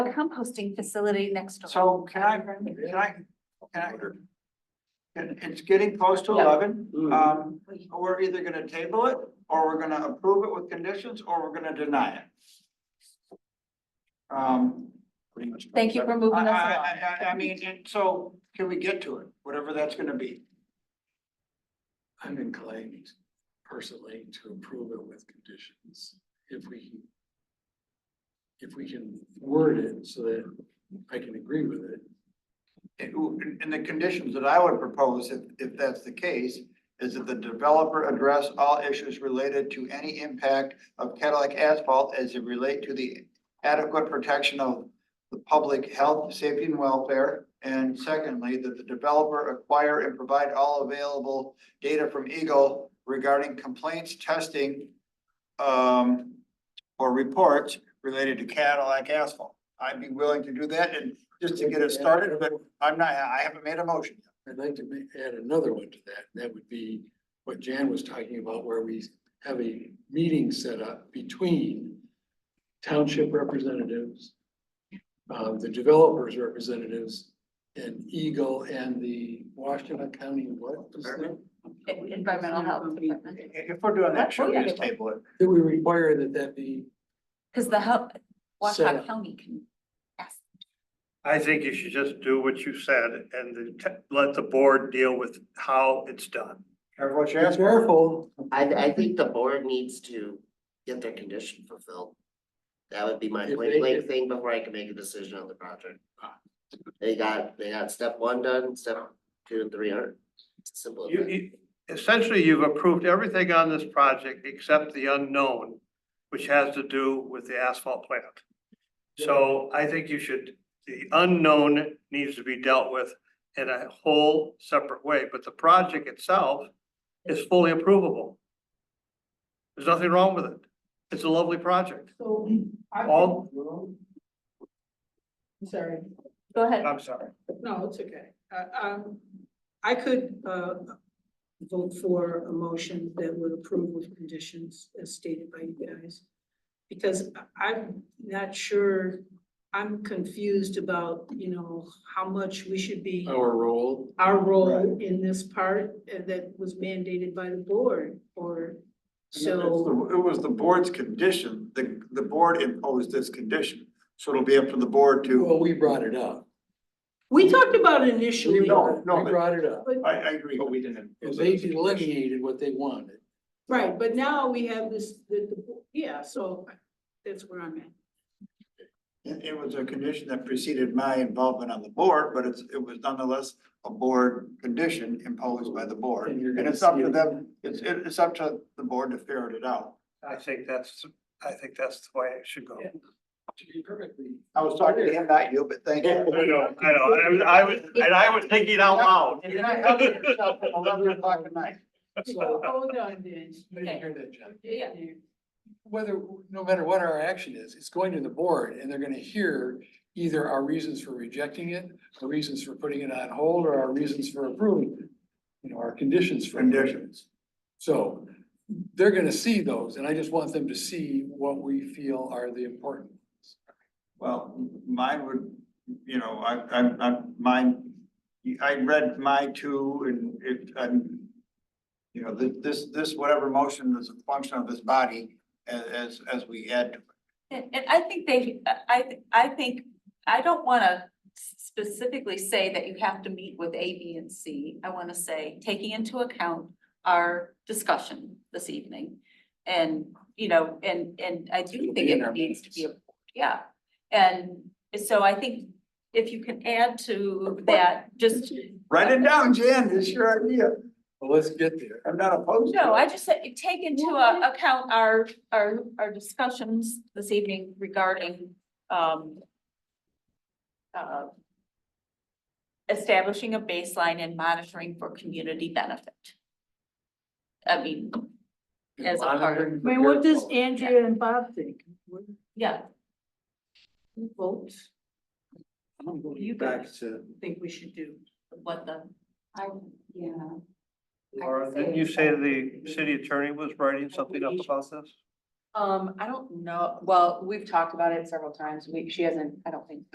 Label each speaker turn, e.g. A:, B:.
A: a composting facility next door.
B: So can I, can I, can I? It- It's getting close to eleven, um, we're either gonna table it, or we're gonna approve it with conditions, or we're gonna deny it. Um,
A: Thank you for
B: I,
A: moving us along.
B: I, I, I mean, and so can we get to it, whatever that's gonna be?
C: I'm inclined personally to approve it with conditions if we can. If we can word it so that I can agree with it.
B: And, w- and the conditions that I would propose, if, if that's the case, is that the developer address all issues related to any impact of Cadillac asphalt as it relate to the adequate protection of the public health, safety and welfare. And secondly, that the developer acquire and provide all available data from Eagle regarding complaints, testing, um, or reports related to Cadillac asphalt. I'd be willing to do that and just to get it started, but I'm not, I haven't made a motion. yet.
C: I'd like to ma- add another one to that. That would be what Jan was talking about, where we have a meeting set up between township representatives, um, the developers representatives, and Eagle and the Washington County, what? was that?
A: Environmental health department.
B: If we're doing that, should we just table it?
C: That we require that that be,
A: Cause the help,
C: Set
A: Washington
C: up.
A: County can ask.
D: I think you should just do what you said and then te- let the board deal with how it's done.
B: Careful what you ask for.
C: careful,
E: I, I think the board needs to get their condition fulfilled. That would be my
C: If
E: point
C: they-
E: blank thing before I can make a decision on the project. They got, they got step one done, step two and three are simple. as
D: You,
E: that.
D: you- essentially, you've approved everything on this project except the unknown, which has to do with the asphalt plant. So I think you should, the unknown needs to be dealt with in a whole separate way, but the project itself is fully approvable. There's nothing wrong with it. It's a lovely project.
F: So. I-
D: All,
F: I'm Sorry,
A: Go ahead.
D: I'm sorry.
F: no, it's okay. Uh, um, I could, uh, vote for a motion that would approve with conditions as stated by you guys. Because I- I'm not sure, I'm confused about, you know, how much we should be,
C: our role.
F: our role in this part uh, that was mandated by the board or so.
B: It was the board's condition, the, the board imposed this condition, so it'll be up to the board to.
C: Well, we brought it up.
F: We talked about it initially.
B: No, no,
C: We brought it up.
B: I, I agree, but we didn't.
C: And they delineated what they wanted.
F: Right, but now we have this, the, the- yeah, so that's where I'm at.
B: It, it was a condition that preceded my involvement on the board, but it's, it was nonetheless a board condition imposed by the board.
C: And you're
B: And
C: gonna
B: it's up
C: see
B: to
C: it.
B: them, it's, it- it's up to the board to figure it out.
D: I think that's, I think that's the way it should go.
C: Yeah. To be perfectly.
B: I was talking to him, not you, but thank you.
D: I know, I know, I was, I was, and I was thinking out loud.
B: You're not helping yourself at eleven o'clock at night.
F: So hold on then.
C: You didn't hear that, Jen.
F: Yeah.
C: Whether, no matter what our action is, it's going to the board and they're gonna hear either our reasons for rejecting it, the reasons for putting it on hold, or our reasons for approving it. You know, our conditions for.
B: Conditions.
C: So they're gonna see those and I just want them to see what we feel are the important. ones.
B: Well, mine would, you know, I, I, I, mine, I read my two and it, I'm. You know, thi- this, this, whatever motion is a function of this body as, as, as we add. to it.
A: And, and I think they, I, I think, I don't wanna specifically say that you have to meet with A, B, and C. I wanna say, taking into account our discussion this evening. And, you know, and, and I do
C: It'll
A: think
C: be in
A: it
C: our
A: needs to be,
C: minutes.
A: a- yeah. And so I think if you can add to that, just,
B: Write it down, Jan, it's your idea.
C: Well, let's get there.
B: I'm not opposed to it.
A: no, I just said, take into a- account our, our, our discussions this evening regarding, um, uh, establishing a baseline and monitoring for community benefit. I mean, As a part of-
F: I mean, what does Andrea and Bob think? What-
A: yeah,
F: who Votes,
C: I'm going
F: You
C: back
F: guys.
C: to.
F: think we should do.
A: what the, I, yeah.
D: Laura, didn't you say the city attorney was writing something up about this?
A: Um, I don't know, well, we've talked about it several times, we, she hasn't, I don't think,